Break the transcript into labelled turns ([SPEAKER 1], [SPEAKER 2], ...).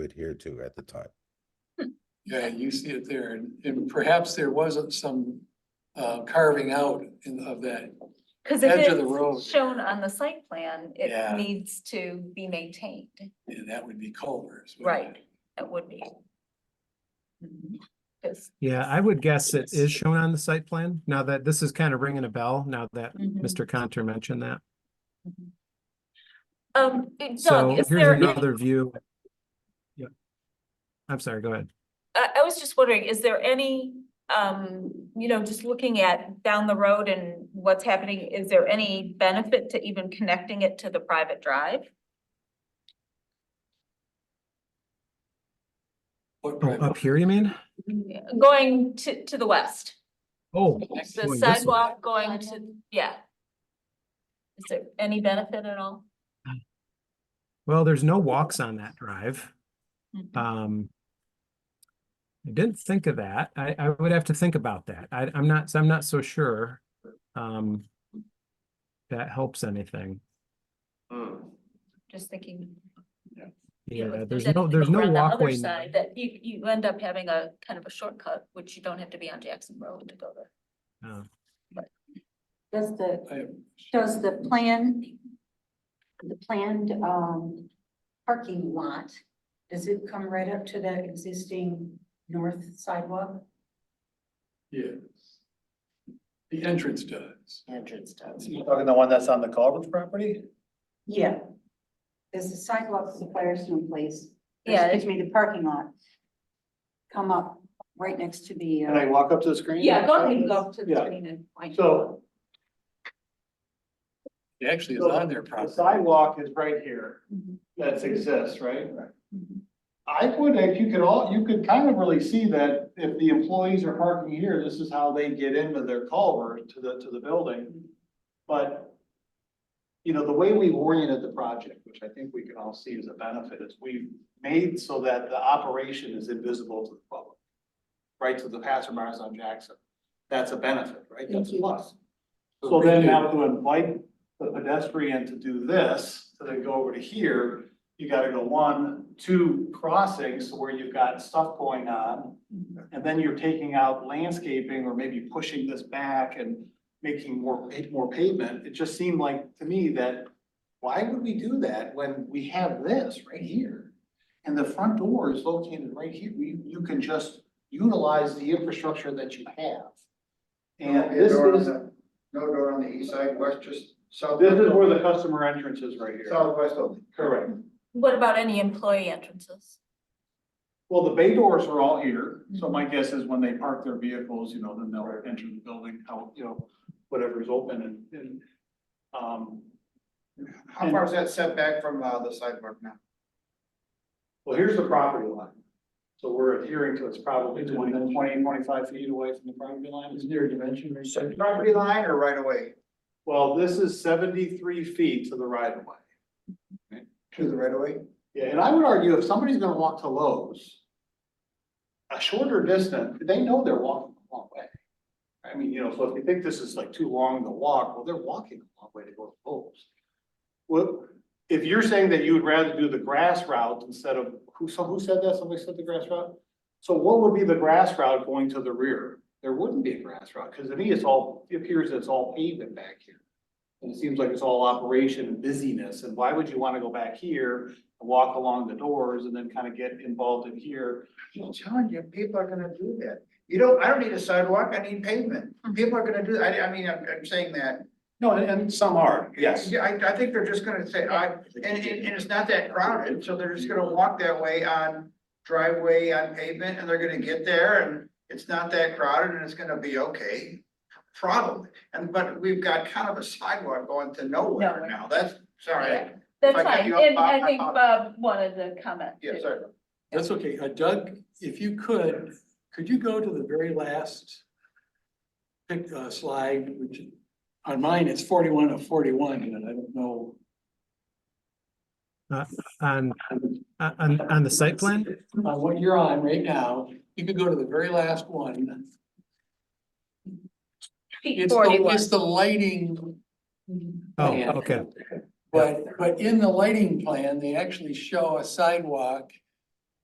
[SPEAKER 1] adhere to at the time.
[SPEAKER 2] Yeah, you see it there, and- and perhaps there wasn't some uh, carving out in, of that.
[SPEAKER 3] Cause
[SPEAKER 2] Edge
[SPEAKER 3] if
[SPEAKER 2] of the road.
[SPEAKER 3] it's shown on the site plan,
[SPEAKER 2] Yeah.
[SPEAKER 3] it needs to be maintained.
[SPEAKER 2] And that would be Culvers.
[SPEAKER 3] Right, it would be. Mm-hmm. Cause.
[SPEAKER 4] Yeah, I would guess it is shown on the site plan. Now that this is kind of ringing a bell now that
[SPEAKER 3] Mm-hmm.
[SPEAKER 4] Mr. Conter mentioned that.
[SPEAKER 3] Um,
[SPEAKER 4] So
[SPEAKER 3] Doug, is
[SPEAKER 4] here's
[SPEAKER 3] there,
[SPEAKER 4] another view. Yeah. I'm sorry, go ahead.
[SPEAKER 3] I, I was just wondering, is there any, um, you know, just looking at down the road and what's happening, is there any benefit to even connecting it to the private drive?
[SPEAKER 4] Oh, Up here, you mean?
[SPEAKER 3] Going to, to the west,
[SPEAKER 4] Oh. boy,
[SPEAKER 3] the
[SPEAKER 4] this one.
[SPEAKER 3] sidewalk going to, yeah. Is there any benefit at all?
[SPEAKER 4] Well, there's no walks on that drive.
[SPEAKER 3] Mhm.
[SPEAKER 4] Um. I didn't think of that. I, I would have to think about that. I, I'm not, I'm not so sure. Um. That helps anything.
[SPEAKER 5] Hmm.
[SPEAKER 3] Just thinking. you know,
[SPEAKER 4] Yeah,
[SPEAKER 3] if
[SPEAKER 4] there's no,
[SPEAKER 3] anything
[SPEAKER 4] there's
[SPEAKER 3] over
[SPEAKER 4] no
[SPEAKER 3] on the other
[SPEAKER 4] walkway. now.
[SPEAKER 3] side That you, you end up having a kind of a shortcut, which you don't have to be on Jackson Road to go there.
[SPEAKER 4] Oh.
[SPEAKER 6] Does the, does the plan, the planned, um, parking lot, does it come right up to that existing north sidewalk?
[SPEAKER 2] Yeah. The entrance does.
[SPEAKER 6] Entrance does.
[SPEAKER 7] You're talking the one that's on the Culvers property?
[SPEAKER 6] Yeah. Does the sidewalk to the Firestone place? or
[SPEAKER 3] Yeah.
[SPEAKER 6] Excuse me, the parking lot. Come up right next to the.
[SPEAKER 7] Can I
[SPEAKER 6] uh,
[SPEAKER 7] walk up to the screen?
[SPEAKER 6] Yeah, go ahead and go up to the
[SPEAKER 7] Yeah.
[SPEAKER 6] screen and point.
[SPEAKER 7] So
[SPEAKER 2] It actually is on their
[SPEAKER 7] the
[SPEAKER 2] property.
[SPEAKER 7] sidewalk is right here,
[SPEAKER 6] Mhm.
[SPEAKER 7] that exists, right?
[SPEAKER 6] Mhm.
[SPEAKER 7] I would, if you could all, you could kind of really see that if the employees are parking here, this is how they get into their culvert to the, to the building. But, you know, the way we've oriented the project, which I think we can all see as a benefit, is we've made so that the operation is invisible to the public. Right, to the passerbyers on Jackson. That's a benefit, right? That's a plus. So then now to invite the pedestrian to do this, to then go over to here, you gotta go one, two crossings where you've got stuff going on.
[SPEAKER 5] Mm-hmm.
[SPEAKER 7] And then you're taking out landscaping or maybe pushing this back and making more, pa- more pavement. It just seemed like to me that why would we do that when we have this right here? And the front door is located right here. You, you can just utilize the infrastructure that you have. And this is,
[SPEAKER 5] No door on the east side, west, just south.
[SPEAKER 7] this is where the customer entrance is right here.
[SPEAKER 5] Southwest only.
[SPEAKER 7] Correct.
[SPEAKER 3] What about any employee entrances?
[SPEAKER 7] Well, the bay doors are all here, so my
[SPEAKER 5] Mm-hmm.
[SPEAKER 7] guess is when they park their vehicles, you know, then they'll enter the building, how, you know, whatever's open and, and, um,
[SPEAKER 5] How far is that setback from uh, the sidewalk now?
[SPEAKER 7] well, here's the property line. So we're adhering to it's probably 20, 20, 25 feet away from the property line. Is there a dimension right
[SPEAKER 5] Property line or right away?
[SPEAKER 7] Well, this is seventy-three feet to the right of way.
[SPEAKER 5] To the right away?
[SPEAKER 7] Yeah, and I would argue if somebody's gonna walk to Lowe's. A shorter distance, they know they're walking a long way. I mean, you know, so if you think this is like too long to walk, well, they're walking a long way to go to Lowe's. Well, if you're saying that you would rather do the grass route instead of, who, so who said that? Somebody said the grass route? So what would be the grass route going to the rear? There wouldn't be a grass route, because to me, it's all, it appears it's all pavement back here. And it seems like it's all operation and busyness, and why would you wanna go back here and walk along the doors and then kind of get involved in here.
[SPEAKER 5] I'm telling you, people are gonna do that. You don't, I don't need a sidewalk, I need pavement. People are gonna do, I, I mean, I'm, I'm saying that.
[SPEAKER 7] No, and, and some are,
[SPEAKER 5] Yeah, I, I think they're just gonna say, I, and, and, and it's not that crowded, so they're just gonna walk that way on driveway, on pavement, and they're gonna get there and it's not that crowded and it's gonna be okay. Probably, and, but we've got kind of a sidewalk going to nowhere
[SPEAKER 3] Nowhere.
[SPEAKER 5] now. That's, sorry.
[SPEAKER 3] Yeah. That's
[SPEAKER 5] I cut
[SPEAKER 3] fine,
[SPEAKER 5] you off,
[SPEAKER 3] and
[SPEAKER 5] Bob,
[SPEAKER 3] I
[SPEAKER 5] I
[SPEAKER 3] think Bob
[SPEAKER 5] apologize.
[SPEAKER 3] wanted to comment
[SPEAKER 5] Yeah,
[SPEAKER 3] too.
[SPEAKER 5] sorry.
[SPEAKER 2] That's okay. Uh, Doug, if you could, could you go to the very last pic- uh, slide, which on mine, it's forty-one of forty-one, and I don't know.
[SPEAKER 4] Uh, On, on- on, on the site plan?
[SPEAKER 2] On uh, what you're on right now, you could go to the very last one.
[SPEAKER 3] Feet
[SPEAKER 2] It's the,
[SPEAKER 3] 41.
[SPEAKER 2] it's the lighting.
[SPEAKER 4] Oh,
[SPEAKER 2] plan.
[SPEAKER 4] okay.
[SPEAKER 2] But, but in the lighting plan, they actually show a sidewalk